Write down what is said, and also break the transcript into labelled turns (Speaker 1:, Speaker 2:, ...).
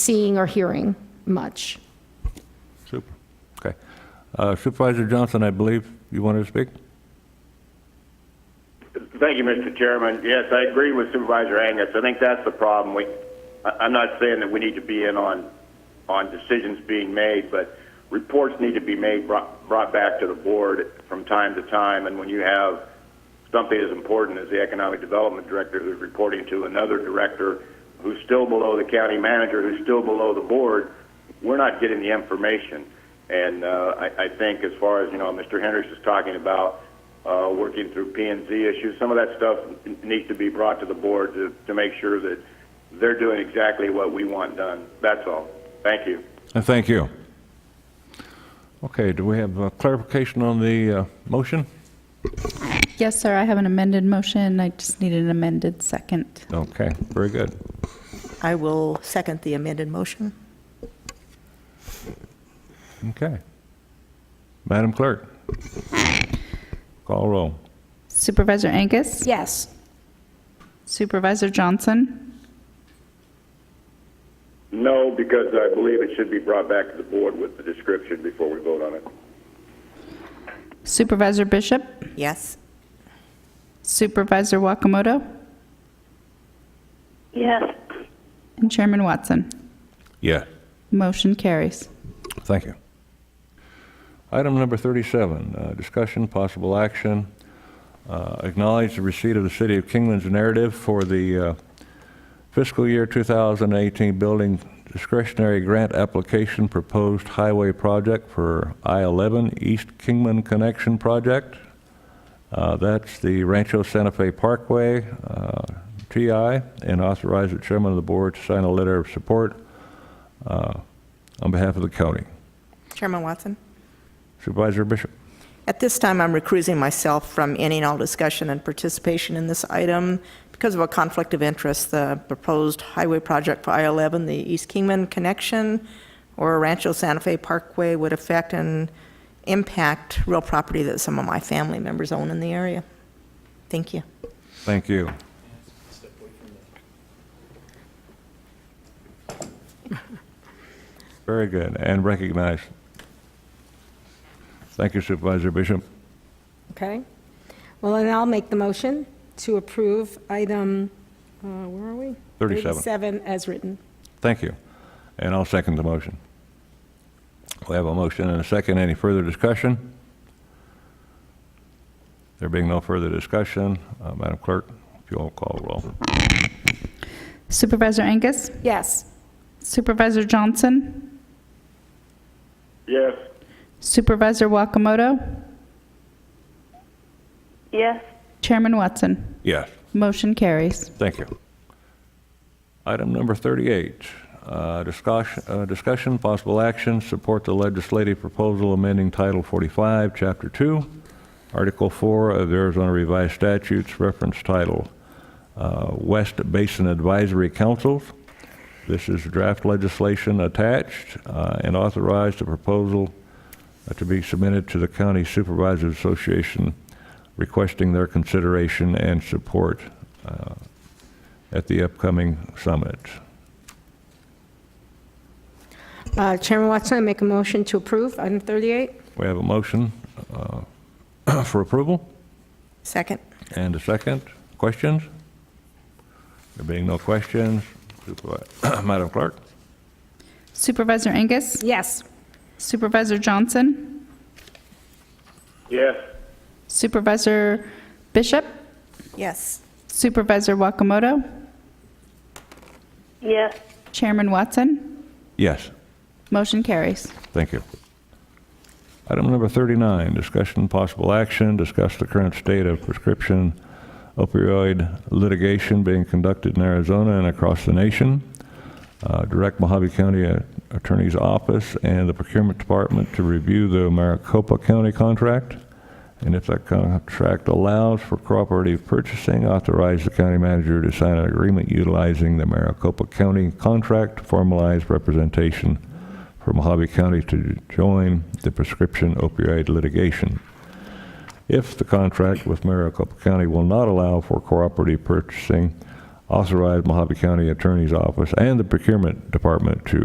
Speaker 1: seeing or hearing much.
Speaker 2: Super, okay. Uh, Supervisor Johnson, I believe you wanted to speak?
Speaker 3: Thank you, Mr. Chairman. Yes, I agree with Supervisor Angus. I think that's the problem. We, I- I'm not saying that we need to be in on, on decisions being made, but reports need to be made, brought, brought back to the board from time to time. And when you have something as important as the economic development director who's reporting to another director who's still below the county manager, who's still below the board, we're not getting the information. And uh, I, I think as far as, you know, Mr. Hendricks is talking about uh, working through P&Z issues, some of that stuff n- needs to be brought to the board to, to make sure that they're doing exactly what we want done. That's all. Thank you.
Speaker 2: Uh, Thank you. Okay, do we have uh, clarification on the uh, motion?
Speaker 4: Yes, sir, I have an amended motion. I just need an amended second.
Speaker 2: Okay, very good.
Speaker 5: I will second the amended motion.
Speaker 2: Okay. Madam Clerk? Call roll.
Speaker 4: Supervisor Angus?
Speaker 1: Yes.
Speaker 4: Supervisor Johnson?
Speaker 3: No, because I believe it should be brought back to the board with the description before we vote on it.
Speaker 4: Supervisor Bishop?
Speaker 5: Yes.
Speaker 4: Supervisor Wakamoto?
Speaker 6: Yes,
Speaker 4: And Chairman Watson?
Speaker 2: Yeah.
Speaker 4: Motion carries.
Speaker 2: Thank you. Item number 37, uh, discussion, possible action, uh, acknowledge the receipt of the City of Kingman's narrative for the uh, fiscal year 2018 building discretionary grant application proposed highway project for I-11 East Kingman Connection Project. Uh, That's the Rancho Santa Fe Parkway, uh, TI, and authorize the chairman of the board to sign a letter of support uh, on behalf of the county.
Speaker 5: Chairman Watson?
Speaker 2: Supervisor Bishop?
Speaker 5: At this time, I'm recusing myself from any and all discussion and participation in this item because of a conflict of interest. The proposed highway project for I-11, the East Kingman Connection, or Rancho Santa Fe Parkway would affect and impact real property that some of my family members own in the area. Thank you.
Speaker 2: Thank you. Very good, and recognized. Thank you Supervisor Bishop.
Speaker 7: Okay. Well, then I'll make the motion to approve item, uh, where are we?
Speaker 2: 37.
Speaker 7: 37 as written.
Speaker 2: Thank you. And I'll second the motion. We have a motion and a second. Any further discussion? There being no further discussion, uh, Madam Clerk, if you'll call roll.
Speaker 4: Supervisor Angus?
Speaker 7: Yes.
Speaker 4: Supervisor Johnson?
Speaker 3: Yes.
Speaker 4: Supervisor Wakamoto?
Speaker 6: yes,
Speaker 4: Chairman Watson?
Speaker 2: Yes.
Speaker 4: Motion carries.
Speaker 2: Thank you. Item number 38, uh, discussion, uh, discussion, possible action, support the legislative proposal amending Title 45, Chapter 2, Article 4 of the Arizona Revised Statutes, reference title, uh, West Basin Advisory Councils. This is draft legislation attached uh, and authorized the proposal uh, to be submitted to the County Supervisors Association requesting their consideration and support at the upcoming summit.
Speaker 7: Uh, Chairman Watson, I make a motion to approve item 38.
Speaker 2: We have a motion uh, for approval
Speaker 5: Second?
Speaker 2: and a second. Questions? There being no questions, Supervi- Madam Clerk?
Speaker 4: Supervisor Angus?
Speaker 7: Yes.
Speaker 4: Supervisor Johnson?
Speaker 3: Yes.
Speaker 4: Supervisor Bishop?
Speaker 5: Yes.
Speaker 4: Supervisor Wakamoto?
Speaker 6: yes,
Speaker 4: Chairman Watson?
Speaker 2: Yes.
Speaker 4: Motion carries.
Speaker 2: Thank you. Item number 39, discussion possible action, discuss the current state of prescription opioid litigation being conducted in Arizona and across the nation. Uh, Direct Mojave County uh, Attorney's Office and the Procurement Department to review the Maricopa County contract. And if that contract allows for cooperative purchasing, authorize the county manager to sign an agreement utilizing the Maricopa County contract to formalize representation for Mojave County to join the prescription opioid litigation. If the contract with Maricopa County will not allow for cooperative purchasing, authorize Mojave County Attorney's Office and the Procurement Department to